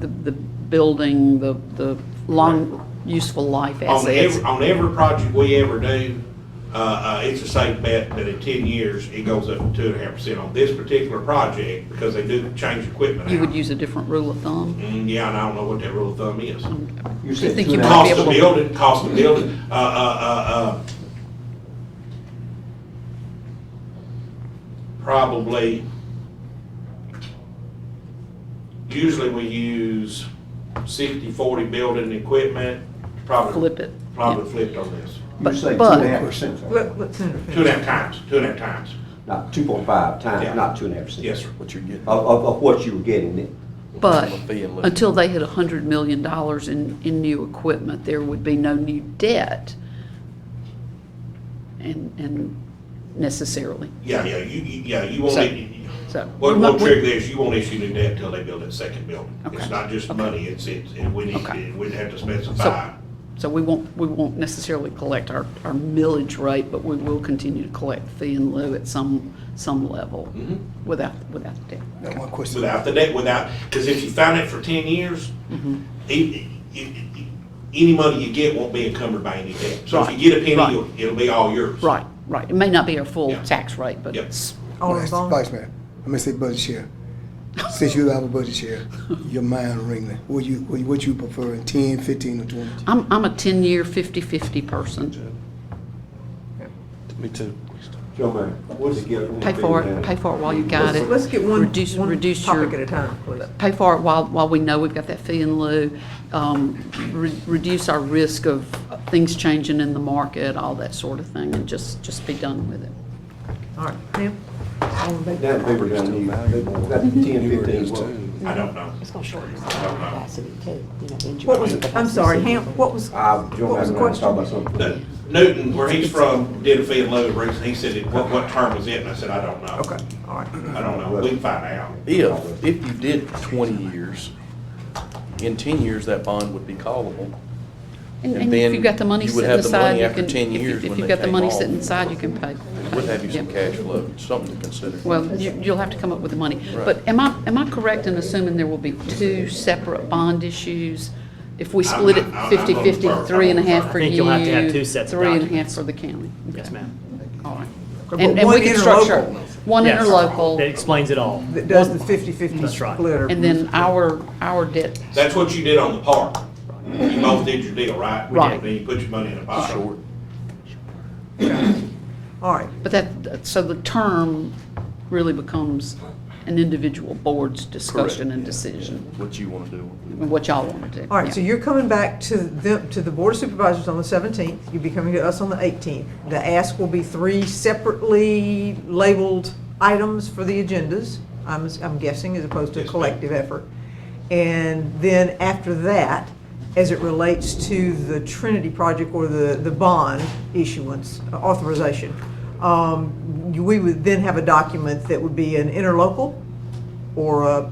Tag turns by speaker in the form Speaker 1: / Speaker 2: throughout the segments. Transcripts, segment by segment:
Speaker 1: the, the building, the, the long useful life
Speaker 2: On
Speaker 1: assets.
Speaker 2: every, on every project we ever do, uh, uh, it's a safe bet that in ten years, it goes up to two and a half percent on this particular project, because they do change equipment
Speaker 1: You would
Speaker 2: out.
Speaker 1: use a different rule of thumb?
Speaker 2: Mm, yeah, and I don't know what that rule of thumb is.
Speaker 3: You
Speaker 1: I
Speaker 3: said
Speaker 1: think
Speaker 3: two
Speaker 1: you
Speaker 3: and a
Speaker 1: might
Speaker 3: half.
Speaker 1: be
Speaker 2: Cost
Speaker 1: able
Speaker 2: of
Speaker 1: to-
Speaker 2: building, cost of building, uh, uh, uh, uh. Probably. Usually we use sixty, forty building equipment, probably.
Speaker 1: Flip it,
Speaker 2: Probably flipped on this.
Speaker 3: You
Speaker 1: But-
Speaker 3: say two
Speaker 1: but-
Speaker 3: and a half percent,
Speaker 4: What, what's in it?
Speaker 2: Two and a half times, two and a half times.
Speaker 3: not two point five
Speaker 2: Yeah.
Speaker 3: times, not two and a half percent.
Speaker 2: Yes, sir.
Speaker 5: What you're getting.
Speaker 3: Of, of, of what you were getting then.
Speaker 1: But
Speaker 5: From a fee and lift.
Speaker 1: until they hit $100 million in, in new equipment, there would be no new debt. And, and necessarily,
Speaker 2: Yeah, yeah, you, you- yeah, you won't,
Speaker 1: So-
Speaker 2: need-
Speaker 1: so.
Speaker 2: what,
Speaker 1: we
Speaker 2: what
Speaker 1: might- we-
Speaker 2: trigger this, you won't issue new debt until they build that second building.
Speaker 1: Okay.
Speaker 2: It's not just money, it's, it's, and we need,
Speaker 1: Okay.
Speaker 2: and we'd have to specify.
Speaker 1: So, so we won't, we won't necessarily collect our, our millage rate, but we will continue to collect fee and lieu at some, some level
Speaker 2: Mhm.
Speaker 1: without, without the debt.
Speaker 5: Got one question.
Speaker 2: Without the debt, without, because if you found it for ten years,
Speaker 1: Mm-hmm.
Speaker 2: e- e- e- any money you get won't be encumbered by any debt. So if
Speaker 1: Right,
Speaker 2: you get a
Speaker 1: right.
Speaker 2: penny, it'll- it'll be all yours.
Speaker 1: Right, right. It may not be our full
Speaker 2: Yeah.
Speaker 1: tax rate, but
Speaker 2: Yep.
Speaker 1: it's,
Speaker 4: All
Speaker 6: Vice-
Speaker 4: along?
Speaker 6: Vice Mayor, I'm gonna say budget share. Since you have a budget share, your mind ringing. What you, what you- what you prefer, ten, fifteen, or twenty?
Speaker 1: I'm, I'm a 10-year, 50-50 person.
Speaker 5: Me too.
Speaker 3: Joe Mayor, what's the gift?
Speaker 1: Pay for it, pay for it while you got it.
Speaker 4: Let's let's get one,
Speaker 1: Reduce-
Speaker 4: one
Speaker 1: reduce your-
Speaker 4: topic at a time, please.
Speaker 1: pay for it while, while we know we've got that fee in lieu, um, re- reduce our risk of things changing in the market, all that sort of thing, and just, just be done with it.
Speaker 4: All right, Tim? All in favor?
Speaker 3: That paper down there, they, that ten, fifteen, well,
Speaker 2: I don't know.
Speaker 7: It's gonna shorten the
Speaker 2: don't know.
Speaker 7: capacity too, you know, injury.
Speaker 4: What was, I'm sorry, Ham, what was,
Speaker 3: I,
Speaker 4: what
Speaker 3: Joe Mayor,
Speaker 4: was
Speaker 3: I'm
Speaker 4: the
Speaker 3: gonna talk
Speaker 4: question?
Speaker 3: about something.
Speaker 2: The- Newton, where he's from, did a fee and loan raise, and he said, it- what, what term was it? And I said, I don't know.
Speaker 4: Okay, all right.
Speaker 2: I don't know. We can find out.
Speaker 5: If, if you did twenty years, in ten years, that bond would be callable.
Speaker 1: And and
Speaker 5: And
Speaker 1: if
Speaker 5: then
Speaker 1: you've got the money
Speaker 5: you would
Speaker 1: sitting
Speaker 5: have the money
Speaker 1: aside, you
Speaker 5: after
Speaker 1: can,
Speaker 5: 10
Speaker 1: if
Speaker 5: years
Speaker 1: you- if
Speaker 5: when
Speaker 1: you've
Speaker 5: they
Speaker 1: got the
Speaker 5: take
Speaker 1: money
Speaker 5: off.
Speaker 1: sitting aside, you can pay.
Speaker 5: Would have you some
Speaker 1: Yeah.
Speaker 5: cash flow, something to consider.
Speaker 1: Well, you- you'll have to come up with the money. But am I, am I correct in assuming there will be two separate bond issues? If we
Speaker 2: I'm-
Speaker 1: split it
Speaker 2: I'm- I'm-
Speaker 1: 50/50,
Speaker 2: I'm-
Speaker 1: three and a half for
Speaker 8: I
Speaker 1: you?
Speaker 8: think you'll have to have two sets of
Speaker 1: Three and a half
Speaker 8: documents.
Speaker 1: for the county?
Speaker 8: Yes,
Speaker 1: Okay.
Speaker 8: ma'am.
Speaker 1: All right.
Speaker 4: But
Speaker 1: And, and
Speaker 4: one
Speaker 1: we can structure
Speaker 4: interlocal
Speaker 1: one
Speaker 8: Yes. That
Speaker 1: interlocal,
Speaker 8: explains it all.
Speaker 4: That does the fifty-fifty
Speaker 8: That's right.
Speaker 4: split or.
Speaker 1: and then our, our debt.
Speaker 2: That's what you did on the park. You both did your deal, right? We did.
Speaker 1: Right.
Speaker 2: Then you put your money in a pot.
Speaker 5: Short.
Speaker 4: All right,
Speaker 1: But that, so the term really becomes an individual board's discussion and decision,
Speaker 5: What you wanna do.
Speaker 1: and what y'all want to do.
Speaker 4: all right,
Speaker 1: Yeah.
Speaker 4: so you're coming back to them, to the Board of Supervisors on the seventeenth, you'll be coming to us on the eighteenth. The ask will be three separately labeled items for the agendas, I'm, I'm guessing, as opposed to a
Speaker 2: Yes, ma'am.
Speaker 4: collective effort. And then after that, as it relates to the Trinity project or the, the bond issuance uh, authorization, um, you- we would then have a document that would be an interlocal or a,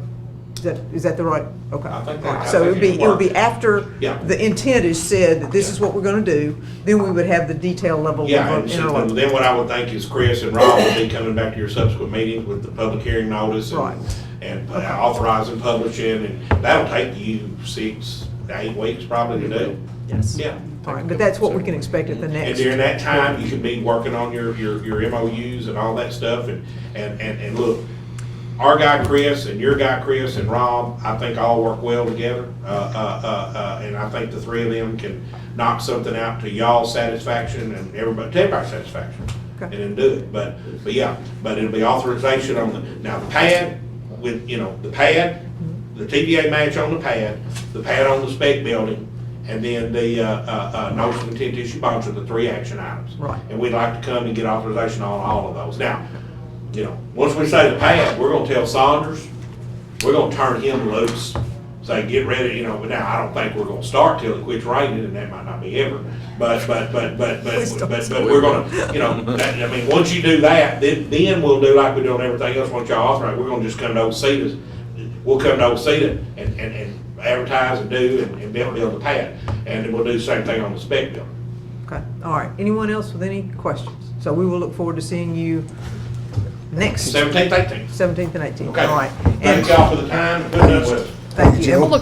Speaker 4: is that, is that the right? Okay.
Speaker 2: I think that-
Speaker 4: All right.
Speaker 2: I
Speaker 4: So it
Speaker 2: think
Speaker 4: would be,
Speaker 2: it
Speaker 4: it would be
Speaker 2: works.
Speaker 4: after
Speaker 2: Yeah.
Speaker 4: the intent is said that this is what we're gonna do, then we would have the detail level of
Speaker 2: Yeah, and so
Speaker 4: interlocal.
Speaker 2: then what I would think is Chris and Rob will be coming back to your subsequent meetings with the public hearing notice
Speaker 4: Right.
Speaker 2: and, and uh, authorizing publishing, and that'll take you six, eight weeks probably to do.
Speaker 8: Yes.
Speaker 2: Yeah.
Speaker 4: All right, but that's what we can expect at the
Speaker 2: And
Speaker 4: next.
Speaker 2: during that time, you can be working on your, your, your MOUs and all that stuff, and, and, and, and look, our guy Chris and your guy Chris and Rob, I think all work well together, uh, uh, uh, uh, and I think the three of them can knock something out to y'all's satisfaction and everybody, to everybody's satisfaction, and
Speaker 4: Okay.
Speaker 2: then do it, but, but yeah, but it'll be authorization on the, now the pad, with, you know, the pad, the TBA match on the pad, the pad on the spec building, and then the, uh, uh, uh, notice of intent to issue bonds are the three action items.
Speaker 4: Right.
Speaker 2: And we'd like to come and get authorization on all of those. Now, you know, once we say the pad, we're gonna tell Saunders, we're gonna turn him loose, say, get ready, you know, but now, I don't think we're gonna start till it quits raining, and that might not be ever. But, but, but, but, but, but, but we're gonna, you know, that, I mean, once you do that, then, then we'll do like we do on everything else, once y'all authorize, we're gonna just come to Old Cedar's. We'll come to Old Cedar and, and, and advertise and do and, and build, build the pad, and then we'll do the same thing on the spec building.
Speaker 4: Okay, all right, anyone else with any questions? So we will look forward to seeing you next
Speaker 2: Seventeenth, eighteenth.
Speaker 4: seventeenth and eighteenth,
Speaker 2: Okay.
Speaker 4: all right.
Speaker 2: Thank
Speaker 4: And
Speaker 2: y'all for the time, and putting up with us.
Speaker 4: Thank you.
Speaker 6: Joe.